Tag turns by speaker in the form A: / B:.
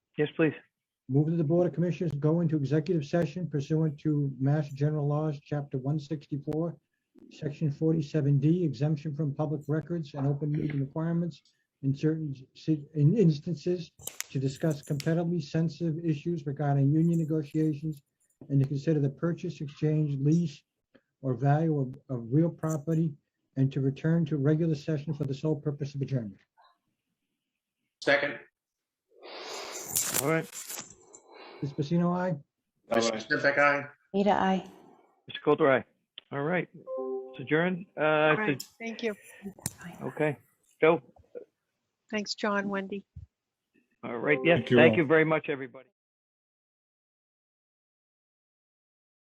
A: Yes, please.
B: Move that the Board of Commissioners go into executive session pursuant to Mass General Laws, Chapter 164, Section 47D, exemption from public records and open meeting requirements in certain si- in instances to discuss competitively sensitive issues regarding union negotiations and to consider the purchase, exchange, lease, or value of, of real property, and to return to regular session for the sole purpose of adjournment.
C: Second.
A: All right.
B: Spacino, aye?
C: Mr. Sniffik, aye.
D: Rita, I.
A: Mr. Coulter, aye. All right. It's adjourned. Uh,
E: All right,
A: it's
E: thank you.
A: a- okay. Joe.
E: Thanks, John, Wendy.
A: All right. Yes.
F: Thank you
A: thank
F: all.
A: you very much, everybody.